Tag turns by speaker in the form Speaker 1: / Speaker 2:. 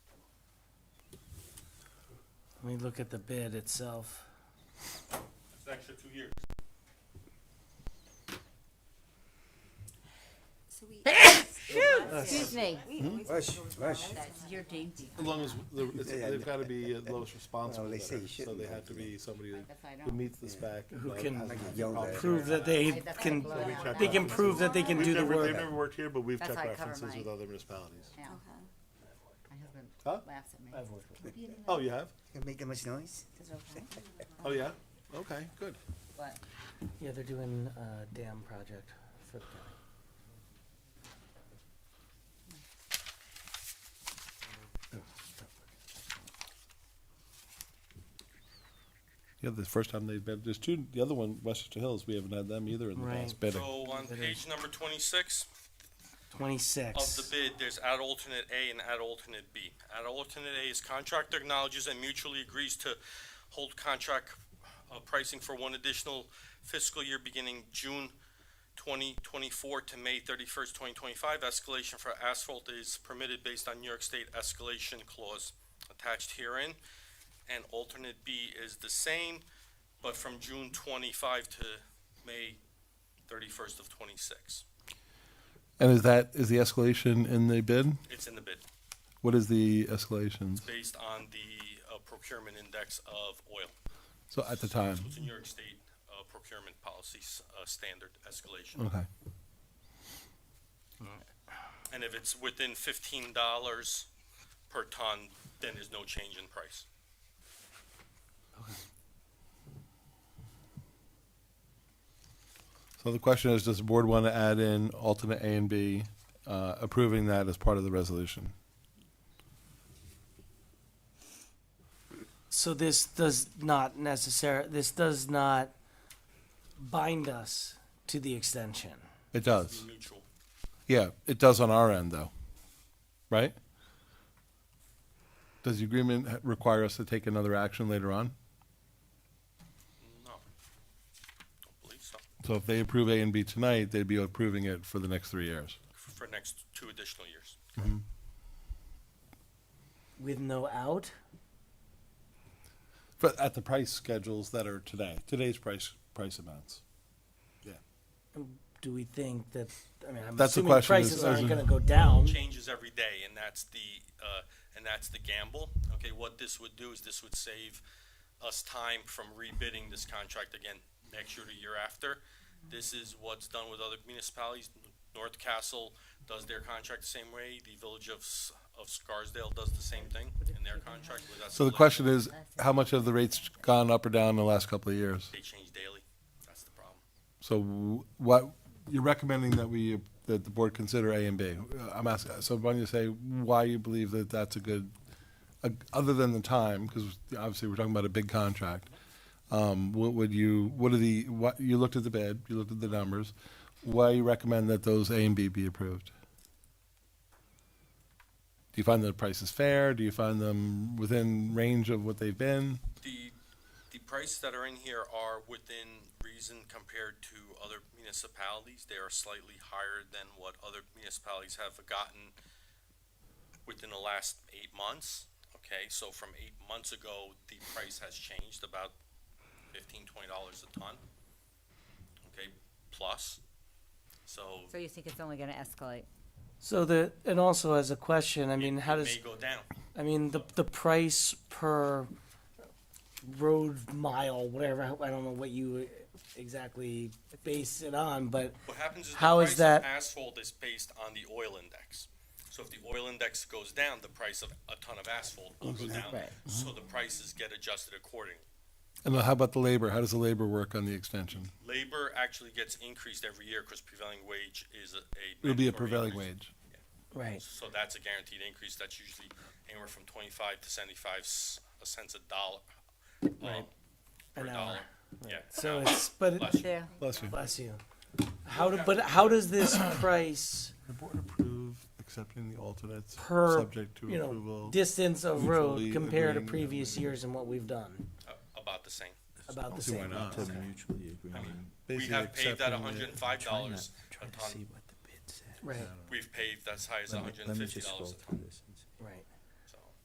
Speaker 1: Let me look at the bid itself.
Speaker 2: It's an extra two years.
Speaker 3: So we. Excuse
Speaker 4: me.
Speaker 5: Rush, rush.
Speaker 3: You're dainty.
Speaker 2: As long as, the- it's-
Speaker 5: Yeah, yeah.
Speaker 2: they've gotta be at lowest responsible
Speaker 5: they
Speaker 2: bidder,
Speaker 5: say
Speaker 2: so
Speaker 5: you shouldn't
Speaker 2: they
Speaker 5: have
Speaker 2: have to
Speaker 5: to
Speaker 2: be somebody
Speaker 3: If I
Speaker 2: who
Speaker 3: don't.
Speaker 2: meets the spec.
Speaker 1: Who
Speaker 2: but
Speaker 1: can
Speaker 2: has
Speaker 5: Like a
Speaker 2: not
Speaker 5: yoga.
Speaker 2: properly-
Speaker 1: Prove that they can, they can prove that they can
Speaker 2: We've
Speaker 1: do the
Speaker 2: never- They've
Speaker 1: work.
Speaker 2: never worked here, but we've
Speaker 3: That's
Speaker 2: checked
Speaker 3: how I cover
Speaker 2: references
Speaker 3: my-
Speaker 2: with other municipalities.
Speaker 3: Now,
Speaker 4: Okay.
Speaker 3: my husband
Speaker 2: Huh?
Speaker 3: laughs at me.
Speaker 1: I've worked
Speaker 3: Can we be in
Speaker 2: Oh, you have?
Speaker 5: Can make that much noise?
Speaker 3: the- is it okay?
Speaker 2: Oh, yeah? Okay, good.
Speaker 3: But
Speaker 1: Yeah, they're doing a dam project for the county.
Speaker 2: Yeah, the first time they've been, there's two, the other one, Westchester Hills, we haven't had them either in
Speaker 1: the last Right.
Speaker 2: bidding.
Speaker 6: So on
Speaker 1: That
Speaker 6: page number twenty-six of the
Speaker 1: Twenty-six.
Speaker 6: bid, there's add alternate A and add alternate B. Add alternate A is contractor acknowledges and mutually agrees to hold contract uh, pricing for one additional fiscal year beginning June twenty twenty-four to May thirty-first, twenty twenty-five. Escalation for asphalt is permitted based on New York State escalation clause attached herein. And alternate B is the same, but from June twenty-five to May thirty-first of twenty-six.
Speaker 2: And is that, is the escalation in the bid?
Speaker 6: It's in the bid.
Speaker 2: What is the escalation?
Speaker 6: based on the uh, procurement index of oil.
Speaker 2: So at the time,
Speaker 6: It's a New York State uh, procurement policy s- uh, standard escalation.
Speaker 2: okay.
Speaker 6: And if it's within fifteen dollars per ton, then there's no change in price.
Speaker 2: So the question is, does the board want to add in alternate A and B, uh, approving that as part of the resolution?
Speaker 1: So this does not necessar, this does not bind us to the extension.
Speaker 2: It
Speaker 6: Be
Speaker 2: does.
Speaker 6: Mutual.
Speaker 2: Yeah, it does on our end, though. Right? Does the agreement h- require us to take another action later on?
Speaker 6: No. Don't believe so.
Speaker 2: So if they approve A and B tonight, they'd be approving it for the next three years.
Speaker 6: For next two additional years.
Speaker 1: With no out?
Speaker 2: But at the price schedules that are today, today's price, price amounts.
Speaker 1: Do we think that, I mean, I'm
Speaker 2: That's the
Speaker 1: assuming
Speaker 2: question
Speaker 1: prices
Speaker 2: is-
Speaker 1: aren't
Speaker 2: is-
Speaker 1: gonna go down.
Speaker 6: Changes every day, and that's the, uh, and that's the gamble. Okay, what this would do is this would save us time from rebidding this contract again next year to year after. This is what's done with other municipalities. North Castle does their contract the same way. The Village of, S- of Scarsdale does the same thing in their contract. with us.
Speaker 2: So the question is, how much have the rates gone up or down in the last couple of years?
Speaker 6: They change daily. That's the problem.
Speaker 2: So w- what, you're recommending that we, that the board consider A and B? Uh, I'm asking, so why don't you say why you believe that that's a good, uh, other than the time, because obviously we're talking about a big contract. Um, What would you, what are the, what, you looked at the bid, you looked at the numbers. Why you recommend that those A and B be approved? Do you find the prices fair? Do you find them within range of what they've been?
Speaker 6: The, the prices that are in here are within reason compared to other municipalities. They are slightly higher than what other municipalities have gotten within the last eight months. Okay, so from eight months ago, the price has changed about fifteen, twenty dollars a ton. Okay, plus. So
Speaker 3: So you think it's only gonna escalate?
Speaker 1: So the, and also as a question, I mean, how
Speaker 6: it
Speaker 1: does,
Speaker 6: may go down.
Speaker 1: I mean, the, the price per road mile, whatever, I don't know what you exactly base it on, but
Speaker 6: What happens is the
Speaker 1: How is
Speaker 6: price of
Speaker 1: that-
Speaker 6: asphalt is based on the oil index. So if the oil index goes down, the price of a ton of asphalt will go down.
Speaker 1: Right.
Speaker 6: So the prices get adjusted accordingly.
Speaker 2: And how about the labor? How does the labor work on the extension?
Speaker 6: Labor actually gets increased every year because prevailing wage is a.
Speaker 2: It'll be a
Speaker 6: mandatory
Speaker 2: prevailing
Speaker 6: increase.
Speaker 2: wage.
Speaker 1: right.
Speaker 6: So that's a guaranteed increase. That's usually anywhere from twenty-five to seventy-five s- cents a dollar. uh, Per
Speaker 1: An hour.
Speaker 6: dollar. Yeah.
Speaker 1: So
Speaker 6: an hour.
Speaker 1: it's, but,
Speaker 6: Bless
Speaker 1: it-
Speaker 6: you.
Speaker 3: Yeah.
Speaker 2: Bless you.
Speaker 1: bless you. How, do- but how does this price
Speaker 2: The board approve accepting the alternates,
Speaker 1: per,
Speaker 2: subject to
Speaker 1: you
Speaker 2: approval.
Speaker 1: know, distance of
Speaker 2: mutually
Speaker 1: road compare to
Speaker 2: agreeing and
Speaker 1: previous years and what we've done?
Speaker 6: A- uh, About the same.
Speaker 1: About the
Speaker 2: See why
Speaker 1: same.
Speaker 2: not?
Speaker 7: To mutually agree.
Speaker 6: We
Speaker 2: Basically
Speaker 6: have paid that
Speaker 2: accepting the-
Speaker 6: hundred and five dollars a
Speaker 7: Trying to
Speaker 6: ton.
Speaker 7: see what the bid said.
Speaker 1: Right.
Speaker 6: We've paid that's high as
Speaker 7: Let me-
Speaker 6: hundred
Speaker 7: Let
Speaker 6: and
Speaker 7: me
Speaker 6: fifty
Speaker 7: just scroll
Speaker 6: dollars a ton.
Speaker 7: through this.